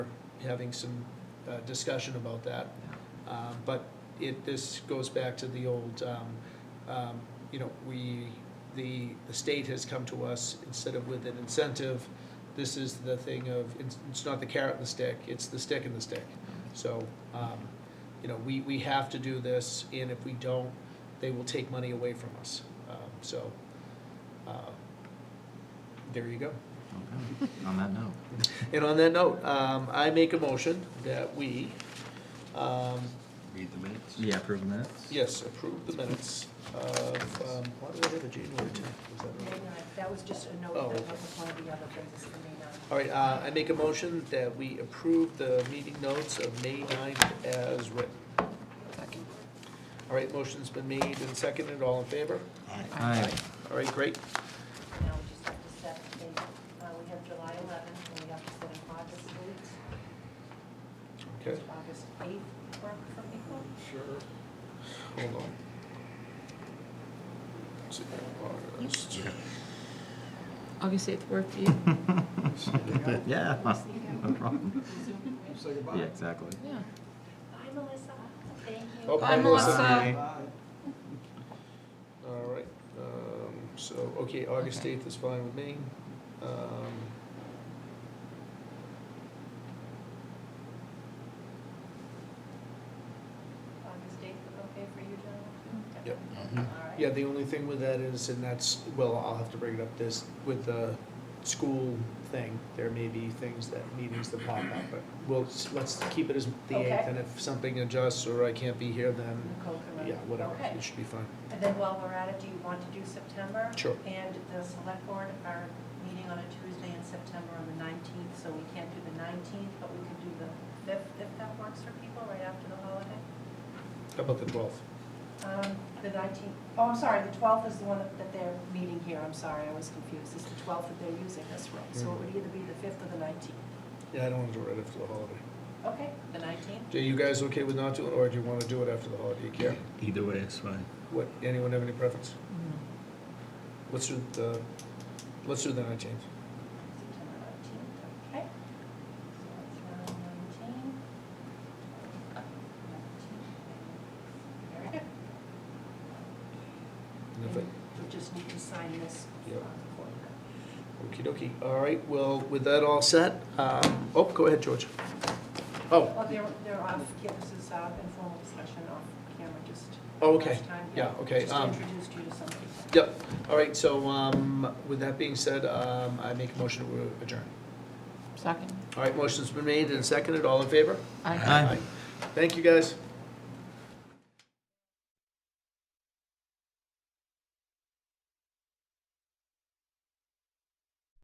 having some uh, discussion about that. Um, But it, this goes back to the old, um, um, you know, we, the, the state has come to us instead of with an incentive. This is the thing of, it's, it's not the carrot and the stick, it's the stick and the stick. So, um, you know, we, we have to do this, and if we don't, they will take money away from us. Um, So, uh, there you go. Okay. On that note, And on that note, um, I make a motion that we, um, Read the minutes? yeah, approve minutes? Yes, approve the minutes of, um, why did I have a January tenth? Was that May right? ninth, that was just a note Oh, that okay. was one of the other things, the May ninth. All right, uh, I make a motion that we approve the meeting notes of May ninth as written. All right, motion's been made and seconded, all in favor? Aye. All right, great. Now we just have to set the date, uh, we have July eleventh, and we have to set an August date. Okay, Does August eighth work for people? hold on. Let's see, August. August 8th work for you? Yeah, no problem. Say goodbye. Yeah, exactly. Yeah. Bye, Melissa, thank you. Oh, Bye, Melissa. Bye. All right, um, so, okay, August Okay. eighth is fine with me. Um, August eighth, okay for you, John? Yep. Mm-hmm. All right. Yeah, the only thing with that is, and that's, well, I'll have to bring it up this, with the school thing, there may be things that, meetings that pop up, but we'll, s- let's keep it as the eighth, Okay. and if something adjusts or I can't be here, then, Nicole can run it. yeah, whatever, Okay. it should be fine. And then while we're at it, do you want to do September? Sure. And the select board are meeting on a Tuesday in September on the nineteenth, so we can't do the nineteenth, but we could do the fifth, if that works for people, right after the holiday. How about the twelfth? Um, the nineteenth, oh, I'm sorry, the twelfth is the one that that they're meeting here, I'm sorry, I was confused. It's the twelfth that they're using this room, so it would either be the fifth or the nineteenth. Yeah, I don't want to do it right after the holiday. Okay, the nineteenth? Are you guys okay with not doing, it, or do you want to do it after the holiday, you care? Either way is fine. What, anyone have any preference? Mm-hmm. Let's do the, let's do the nineteenth. September nineteenth, okay. So it's around nineteen. Very good. And if it, We just need to sign this. Yep. for that. Okie dokie. All right, well, with that all set, um, oh, go ahead, George. Oh, Well, they're, they're off, yeah, this is uh, informal discussion off camera, just. Oh, okay. last time, Yeah, okay, um, Just introduced you to some people. yep. All right, so um, with that being said, um, I make a motion to adjourn. Second. All right, motion's been made and seconded. All in favor? Aye. Aye. Thank you, guys.